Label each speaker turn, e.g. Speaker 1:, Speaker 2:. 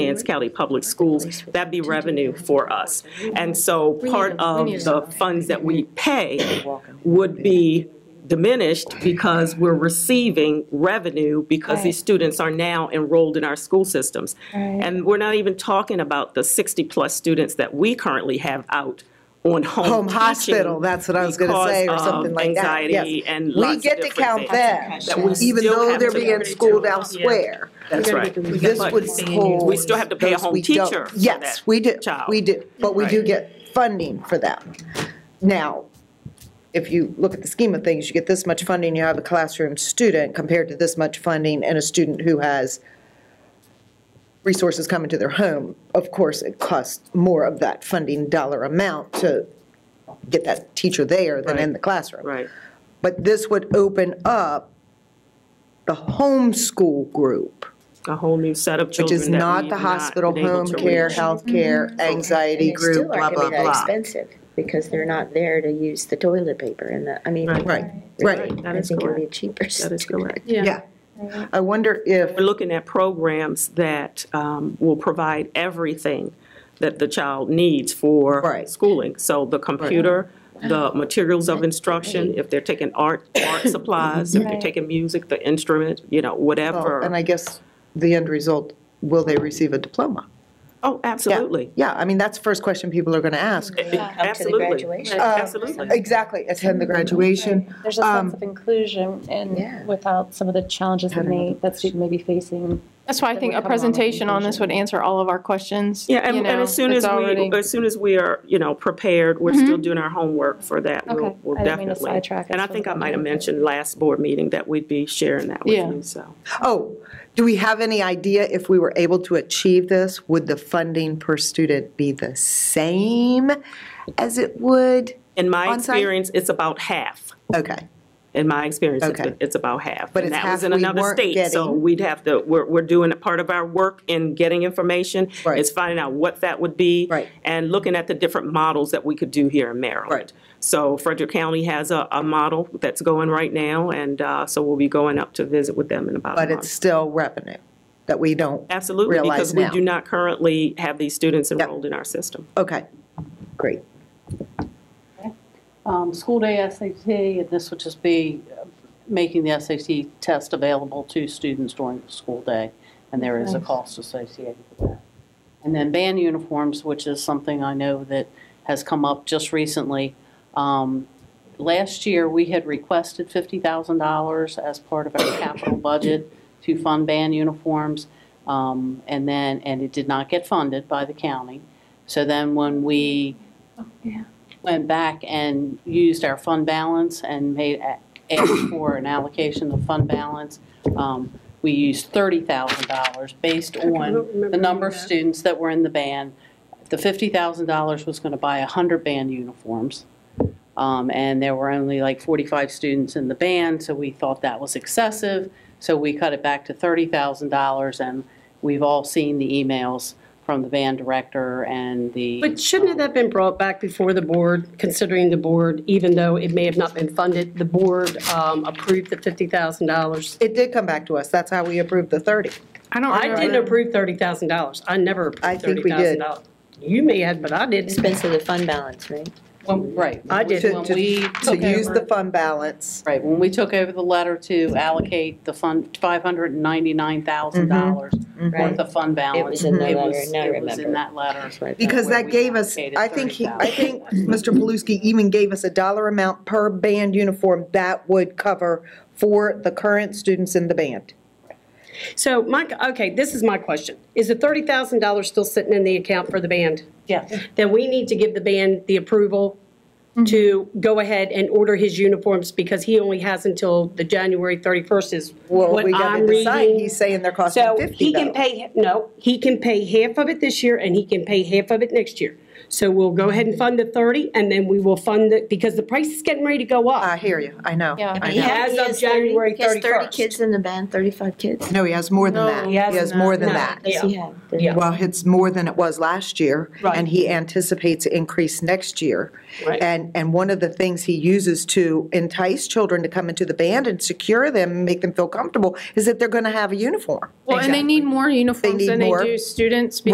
Speaker 1: Vance County Public Schools, that'd be revenue for us. And so part of the funds that we pay would be diminished because we're receiving revenue because these students are now enrolled in our school systems. And we're not even talking about the 60-plus students that we currently have out on home
Speaker 2: Home
Speaker 1: teaching
Speaker 2: Um, hospital, that's what I was gonna
Speaker 1: because
Speaker 2: say, or
Speaker 1: of
Speaker 2: something like that, yes.
Speaker 1: anxiety and
Speaker 2: We
Speaker 1: lots of
Speaker 2: get to
Speaker 1: different
Speaker 2: count
Speaker 1: things.
Speaker 2: them,
Speaker 1: That we
Speaker 2: even
Speaker 1: still
Speaker 2: though
Speaker 1: have
Speaker 2: they're
Speaker 1: to-
Speaker 2: being schooled elsewhere.
Speaker 1: That's right.
Speaker 2: This would hold.
Speaker 1: We still have to pay a
Speaker 2: those
Speaker 1: home
Speaker 2: we don't-
Speaker 1: teacher for
Speaker 2: Yes,
Speaker 1: that
Speaker 2: we do,
Speaker 1: child.
Speaker 2: we do, but we do
Speaker 1: Right.
Speaker 2: get funding for them. Now, if you look at the scheme of things, you get this much funding, you have a classroom student compared to this much funding and a student who has resources coming to their home. Of course, it costs more of that funding dollar amount to get that teacher there than in
Speaker 1: Right.
Speaker 2: the classroom.
Speaker 1: Right.
Speaker 2: But this would open up the homeschool group
Speaker 1: A whole new set of
Speaker 2: which
Speaker 1: children
Speaker 2: is
Speaker 1: that
Speaker 2: not
Speaker 1: we've
Speaker 2: the hospital,
Speaker 1: been able
Speaker 2: home
Speaker 1: to
Speaker 2: care,
Speaker 1: reach.
Speaker 2: health care, anxiety
Speaker 3: And they still
Speaker 2: group,
Speaker 3: are
Speaker 2: blah,
Speaker 3: gonna
Speaker 2: blah,
Speaker 3: be that
Speaker 2: blah.
Speaker 3: Expensive, because they're not there to use the toilet paper and the, I mean.
Speaker 1: Right.
Speaker 2: Right, right,
Speaker 1: Right, that
Speaker 3: I
Speaker 1: is
Speaker 3: think it'd be
Speaker 1: correct.
Speaker 3: cheaper.
Speaker 1: That is correct.
Speaker 2: yeah. I wonder if,
Speaker 1: We're looking at programs that um, will provide everything that the child needs for
Speaker 2: Right.
Speaker 1: schooling. So the computer, the materials of instruction, if they're taking art, art supplies, if they're taking music, the instrument, you know,
Speaker 2: well, Oh, and
Speaker 1: whatever.
Speaker 2: I guess the end result, will they receive a diploma?
Speaker 1: Oh,
Speaker 2: Yeah,
Speaker 1: absolutely.
Speaker 2: Yeah, I mean, that's the first question people are going to ask.
Speaker 3: Up to the
Speaker 1: Absolutely.
Speaker 3: graduation.
Speaker 2: Uh,
Speaker 1: Absolutely.
Speaker 2: Exactly, attend the graduation.
Speaker 4: There's a
Speaker 2: Um,
Speaker 4: sense of inclusion
Speaker 3: Yeah.
Speaker 4: and without some of the challenges that may, that student may be facing.
Speaker 5: That's why I think a presentation on this would answer all of our questions.
Speaker 1: Yeah, and
Speaker 5: you
Speaker 1: and as
Speaker 5: know,
Speaker 1: soon as
Speaker 5: it's
Speaker 1: we,
Speaker 5: already-
Speaker 1: as soon as we are, you know, prepared, we're still doing our homework for that. We'll-
Speaker 4: Okay.
Speaker 1: We'll
Speaker 4: I didn't mean to
Speaker 1: definitely.
Speaker 4: sidetrack.
Speaker 1: And I
Speaker 4: It's
Speaker 1: think I
Speaker 4: okay.
Speaker 1: might have mentioned last board meeting that we'd be sharing that with
Speaker 5: Yeah.
Speaker 1: you, so.
Speaker 2: Oh, do we have any idea if we were able to achieve this? Would the funding per student be the same as it would?
Speaker 1: In my
Speaker 2: On-site?
Speaker 1: experience, it's about half.
Speaker 2: Okay,
Speaker 1: In my experience, it's-
Speaker 2: Okay.
Speaker 1: it's about half.
Speaker 2: But
Speaker 1: And
Speaker 2: it's
Speaker 1: that was
Speaker 2: half
Speaker 1: in
Speaker 2: we
Speaker 1: another
Speaker 2: weren't
Speaker 1: state, So
Speaker 2: getting.
Speaker 1: we'd have to, we're, we're doing a part of our work in getting information.
Speaker 2: Right.
Speaker 1: It's finding out what that would be.
Speaker 2: Right.
Speaker 1: And looking at the different models that we could do here in Maryland.
Speaker 2: Right.
Speaker 1: So Frederick County has a, a model that's going right now, and, uh, so we'll be going up to visit with them in about a
Speaker 2: but it's
Speaker 1: month.
Speaker 2: still revenue that we don't
Speaker 1: Absolutely,
Speaker 2: realize
Speaker 1: because we
Speaker 2: now.
Speaker 1: do not currently have these students enrolled in our system.
Speaker 2: Okay, great.
Speaker 6: um, school day SAT, and this would just be uh, making the SAT test available to students during the school day, and there is a cost associated with that. And then band uniforms, which is something I know that has come up just recently. Um, Last year, we had requested $50,000 as part of our capital budget to fund band uniforms, um, and then, and it did not get funded by the county. So then when we went back and used our fund balance and made, asked for an allocation of fund balance. Um, We used $30,000 based on the number of students that were in the band. The $50,000 was going to buy 100 band uniforms. Um, And there were only like 45 students in the band, so we thought that was excessive. So we cut it back to $30,000 and we've all seen the emails from the band director and the.
Speaker 7: But shouldn't have that been brought back before the board, considering the board, even though it may have not been funded, the board um, approved the $50,000?
Speaker 2: It did come back to us, that's how we approved the 30.
Speaker 5: I don't
Speaker 7: I didn't
Speaker 5: remember.
Speaker 7: approve $30,000. I never
Speaker 2: I think
Speaker 7: approved
Speaker 2: we did.
Speaker 7: $30,000. You may have, but I didn't.
Speaker 3: Expense of the fund balance, right?
Speaker 6: When- Right.
Speaker 7: I did.
Speaker 2: To-
Speaker 6: When
Speaker 2: to-
Speaker 6: we
Speaker 2: To
Speaker 6: took
Speaker 2: use the
Speaker 6: over,
Speaker 2: fund balance,
Speaker 6: right, when we took over the letter to allocate the fund, $599,000
Speaker 2: Mm-hmm.
Speaker 6: worth
Speaker 3: Right.
Speaker 6: of fund balance.
Speaker 3: Mm-hmm. It was in the
Speaker 6: it
Speaker 3: letter,
Speaker 6: was-
Speaker 3: now I
Speaker 6: It was
Speaker 3: remember.
Speaker 6: in that letter.
Speaker 2: because
Speaker 6: Where
Speaker 2: that
Speaker 6: we
Speaker 2: gave us,
Speaker 6: allocated
Speaker 2: I think, he- I
Speaker 6: 30,000.
Speaker 2: think Mr. Paluski even gave us a dollar amount per band uniform that would cover for the current students in the band.
Speaker 7: So my, okay, this is my question. Is the $30,000 still sitting in the account for the band?
Speaker 6: Yes.
Speaker 7: Then we need to give the band the approval
Speaker 2: Mm-hmm.
Speaker 7: to go ahead and order his uniforms because he only has until the January 31st is
Speaker 2: Well,
Speaker 7: what
Speaker 2: we got
Speaker 7: I'm
Speaker 2: to decide,
Speaker 7: reading.
Speaker 2: he's saying they're costing
Speaker 7: So he
Speaker 2: 50
Speaker 7: can
Speaker 2: though.
Speaker 7: pay, no, he can pay half of it this year and he can pay half of it next year. So we'll go ahead and fund the 30, and then we will fund it, because the price is getting ready to go
Speaker 2: I
Speaker 7: up.
Speaker 2: hear you, I know.
Speaker 4: Yeah.
Speaker 2: I
Speaker 3: He
Speaker 2: know.
Speaker 3: has-
Speaker 7: As
Speaker 3: he
Speaker 7: of
Speaker 3: has 30
Speaker 7: January
Speaker 3: He has 30
Speaker 7: 31st.
Speaker 3: kids in the band, 35 kids.
Speaker 2: No, he has more
Speaker 5: No,
Speaker 2: than that.
Speaker 5: he
Speaker 2: He has
Speaker 5: hasn't.
Speaker 2: more than
Speaker 7: No.
Speaker 2: that.
Speaker 3: Does he have?
Speaker 7: Yeah.
Speaker 2: Well, it's more than it was last year.
Speaker 7: Right.
Speaker 2: And he anticipates increase next year.
Speaker 7: Right.
Speaker 2: And, and one of the things he uses to entice children to come into the band and secure them, and make them feel comfortable, is that they're going to have a uniform.
Speaker 5: Well, and they need more
Speaker 2: They
Speaker 5: uniforms
Speaker 2: need
Speaker 5: than they
Speaker 2: more.
Speaker 5: do students because